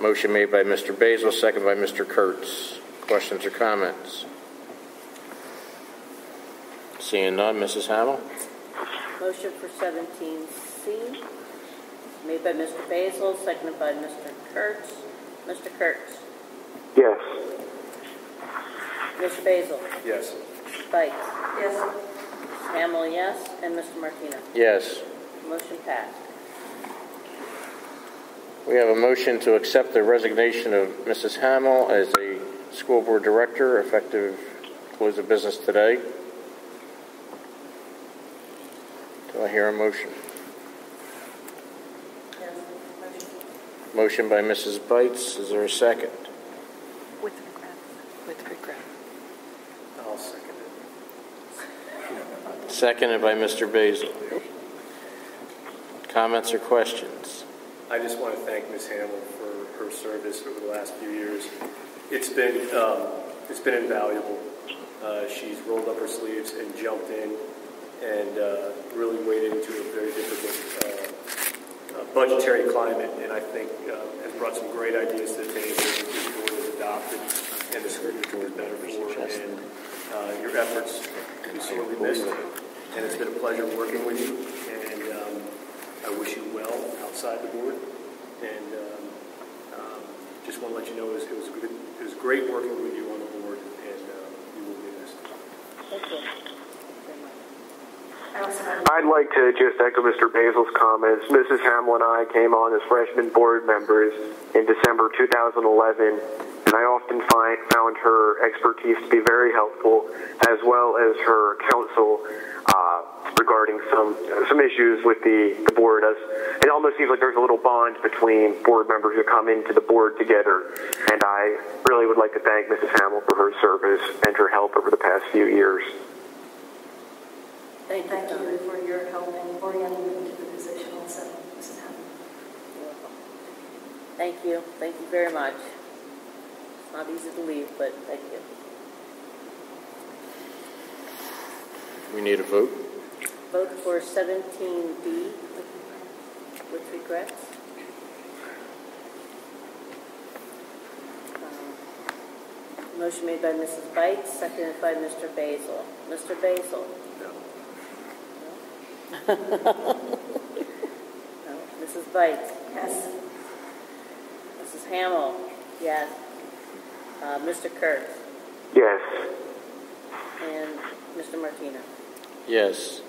Motion made by Mr. Basil, second by Mr. Kurtz. Questions or comments? Seeing none, Mrs. Hamel? Motion for 17C, made by Mr. Basil, seconded by Mr. Kurtz. Mr. Kurtz? Yes. Mr. Basil? Yes. Bites? Yes. Hamel, yes, and Mr. Martino. Yes. Motion passed. We have a motion to accept the resignation of Mrs. Hamel as a school board director effective close of business today. Do I hear a motion? Motion by Mrs. Bites. Is there a second? With regret. With regret. I'll second it. Seconded by Mr. Basil. Comments or questions? I just want to thank Ms. Hamill for her service over the last few years. It's been, um, it's been invaluable. Uh, she's rolled up her sleeves and jumped in and uh, really waded into a very difficult uh, uh, budgetary climate, and I think uh, has brought some great ideas to the table that this board has adopted and the school board is better for. And uh, your efforts will be sorely missed, and it's been a pleasure working with you. And um, I wish you well outside the board, and um, um, just want to let you know it was, it was good, it was great working with you on the board, and um, you will be missed. Thank you. Very much. I'd like to just echo Mr. Basil's comments. Mrs. Hamill and I came on as freshman board members in December 2011, and I often find, found her expertise to be very helpful, as well as her counsel uh, regarding some some issues with the, the board. As it almost seems like there's a little bond between board members who come into the board together, and I really would like to thank Mrs. Hamill for her service and her help over the past few years. Thank Thank you. Donna. you for your help in orienting me to the position also, Mrs. Hammond. You're welcome. Thank you, thank you very much. It's not easy to leave, but thank you. We need a vote. Vote for 17B with regrets. Um, Motion made by Mrs. Bites, seconded by Mr. Basil. Mr. Basil? No. No. Mrs. Bites? Yes. Mrs. Hamel? Yes. Uh, Mr. Kurtz? Yes. And Mr. Martino? Yes.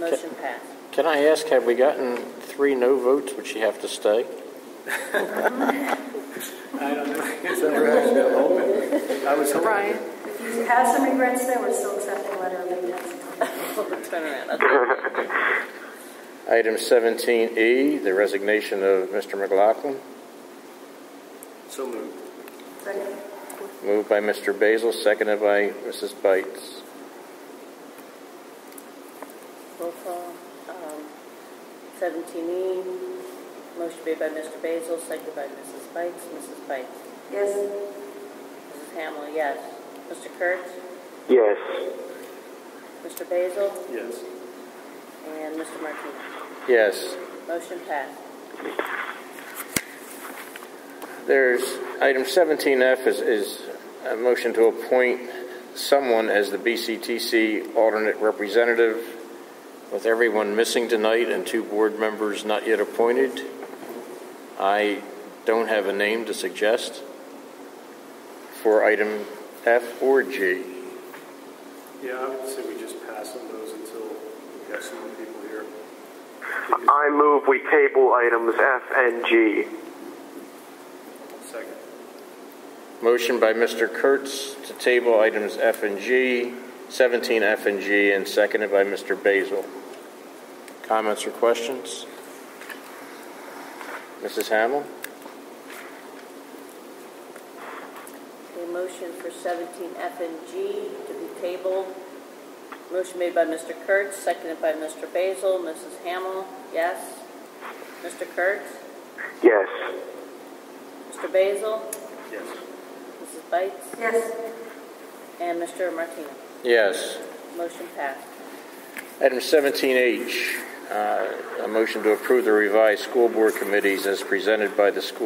Motion passed. Can I ask, have we gotten three no votes? Would she have to stay? I don't know, it's never actually been open. I was hoping. Brian? If you have some regrets there, we're still accepting letter of intent. Turn around. Item 17E, the resignation of Mr. McLaughlin. So moved. Second. Moved by Mr. Basil, seconded by Mrs. Bites. Roll call. um, Seventeen E, motion made by Mr. Basil, seconded by Mrs. Bites. Mrs. Bites. Yes. Mrs. Hamel, yes. Mr. Kurtz, Yes. Mr. Basil, Yes. and Mr. Martino. Yes. Motion passed. There's, item 17F is, is a motion to appoint someone as the BCTC alternate representative, with everyone missing tonight and two board members not yet appointed. I don't have a name to suggest for item F or G. Yeah, I would say we just pass on those until we have some more people here. I move we table items F and G. Second. Motion by Mr. Kurtz to table items F and G, 17F and G, and seconded by Mr. Basil. Comments or questions? Mrs. Hamel? A motion for seventeen F and G to be tabled. Motion made by Mr. Kurtz, seconded by Mr. Basil. Mrs. Hamel, yes. Mr. Kurtz, Yes. Mr. Basil, Yes. Mrs. Bites, Yes. and Mr. Martino. Yes. Motion passed. Item 17H, uh, a motion to approve the revised school board committees as presented by the school